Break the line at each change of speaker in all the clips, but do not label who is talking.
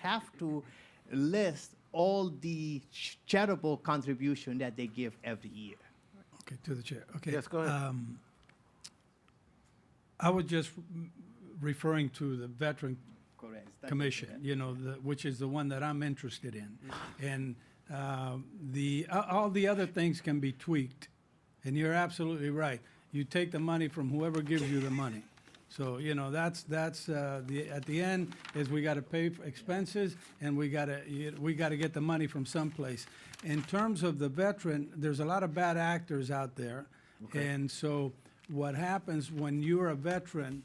have to list all the ch- charitable contribution that they give every year.
Okay, to the chair, okay.
Yes, go ahead.
Um, I was just mm, referring to the Veteran
Correct.
Commission, you know, the, which is the one that I'm interested in. And, um, the, a- all the other things can be tweaked, and you're absolutely right. You take the money from whoever gives you the money. So, you know, that's, that's, uh, the, at the end is we gotta pay for expenses, and we gotta, y- we gotta get the money from someplace. In terms of the veteran, there's a lot of bad actors out there. And so what happens when you're a veteran,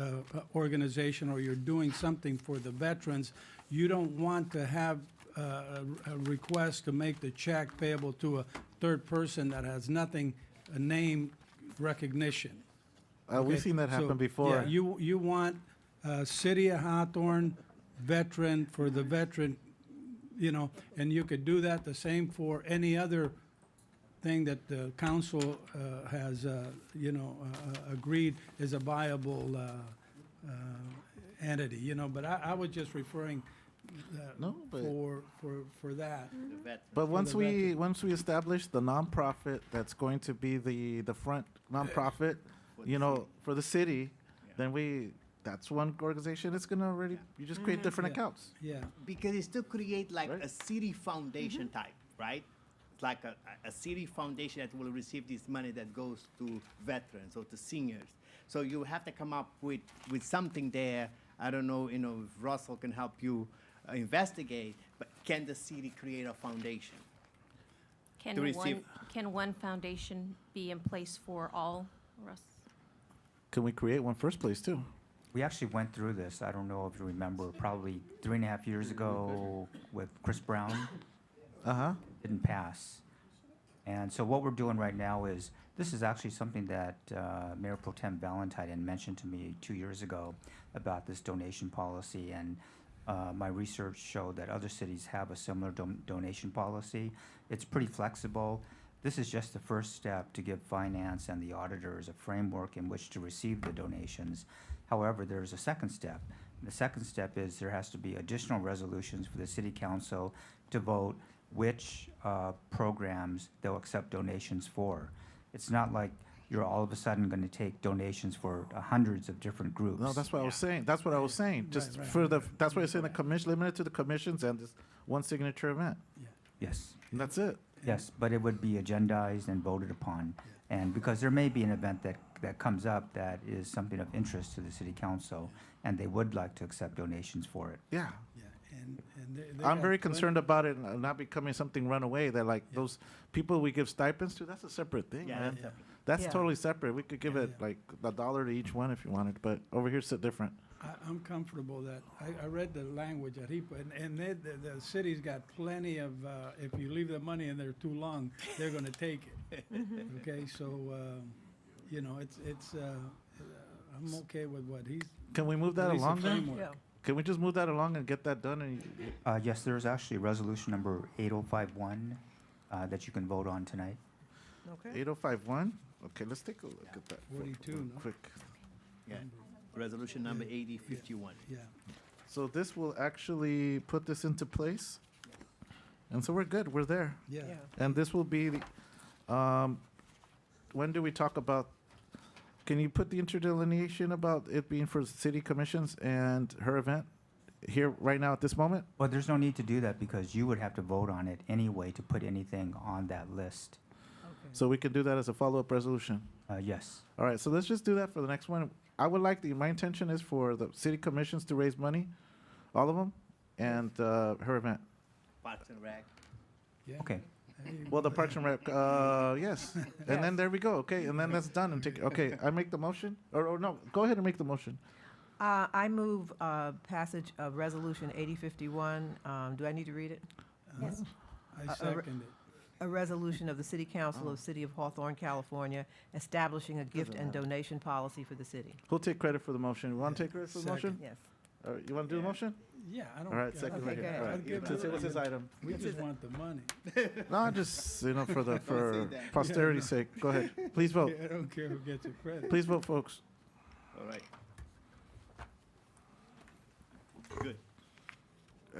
uh, uh, organization or you're doing something for the veterans, you don't want to have uh, a a request to make the check payable to a third person that has nothing, a name recognition.
Uh, we've
Okay,
seen that
so,
happen before.
Yeah, you, you want, uh, City of Hawthorne veteran for the veteran, you know, and you could do that the same for any other thing that the council, uh, has, uh, you know, uh, uh, agreed is a viable, uh, uh, entity, you know, but I, I was just referring, uh,
No, but-
for, for, for that.
but once
the
we once we establish the nonprofit that's going to be the the front nonprofit, you know, for the city, then we that's one organization. It's gonna already you just create different
Mm-hmm. Yeah.
accounts.
Yeah,
because it's to create like
Right.
a city foundation type, right? It's like a, a a city foundation that will receive this money that goes to veterans or to seniors. So you have to come up with, with something there. I don't know, you know, if Russell can help you uh, investigate, but can the city create a foundation? to
Can
receive-
one, can one foundation be in place for all, Russ?
Can we create one first place too?
We actually went through this, I don't know if you remember, probably three and a half years ago with Chris Brown,
Uh huh.
didn't pass. And so what we're doing right now is, this is actually something that uh, Mayor Pro Tem Valentine had mentioned to me two years ago about this donation policy, and uh, my research showed that other cities have a similar don- donation policy. It's pretty flexible. This is just the first step to give finance and the auditors a framework in which to receive the donations. However, there's a second step. The second step is there has to be additional resolutions for the city council to vote which uh, programs they'll accept donations for. It's not like you're all of a sudden going to take donations for uh, hundreds of different groups.
No, that's what I was saying. That's what I was saying. Just
right,
for the that's why I was saying the commission limited to the commissions and this one signature event.
Yes,
And that's it.
yes, but it would be agendized and voted upon. And because there may be an event that, that comes up that is something of interest to the city council, and they would like to accept donations for it.
Yeah.
yeah, and, and. they- they
I'm
got
very
plenty-
concerned about it uh, not becoming something runaway that like those people we give stipends to, that's a separate thing,
Yeah,
man.
that's
Yeah.
That's
Yeah.
totally separate. We could give
Yeah,
it
yeah.
like a dollar to each one if you wanted, but over here it's a different.
I, I'm comfortable that, I, I read the language that he put, and, and they, the, the city's got plenty of, uh, if you leave the money in there too long, they're gonna take it. Okay, so, um, you know, it's, it's, uh, uh, I'm okay with what he's.
Can we move
at
that
least the
along then?
framework.
Can we just move that along and get that done and y-
Uh, yes, there is actually resolution number 8051 uh, that you can vote on tonight.
Okay.
8051? Okay, let's take a look at that. real
42, no?
Quick.
Yeah. Resolution number 8051.
Yeah,
So this will actually put this into place. And so we're good, we're there.
yeah,
Yeah.
And this will be, the- um, when do we talk about, can you put the interdelineation about it being for city commissions and her event here, right now, at this moment?
Well, there's no need to do that because you would have to vote on it anyway to put anything on that list.
So we can do that as a follow-up resolution.
Uh, yes.
All right, so let's just do that for the next one. I would like, the my intention is for the city commissions to raise money, all of them, and uh, her event.
Parks and Rec.
yeah.
Okay.
There you
Well, the
go.
Parks and Rec, uh, yes. And then there we go, okay, and then that's done and take, okay, I make the motion? Or, or no, go ahead and make the motion.
Uh, I move uh, passage of Resolution 8051. Um, Do I need to read it?
Yes.
uh,
Uh,
I second it.
A resolution of the City Council of City of Hawthorne, California, establishing a gift and donation policy for the city.
Who'll take credit for the motion? You want to take credit for the
Second.
motion?
Yes.
All right, you want to do the motion?
Yeah, I don't.
All right,
I
second
don't
right
care.
here. All
I'll
right.
give
Let's see,
it-
What's this item?
We just want the money.
No, just, you know, for the, for
that.
posterity's sake. Go ahead. Please vote.
I don't care who gets the credit.
Please vote, folks.
All right. Good.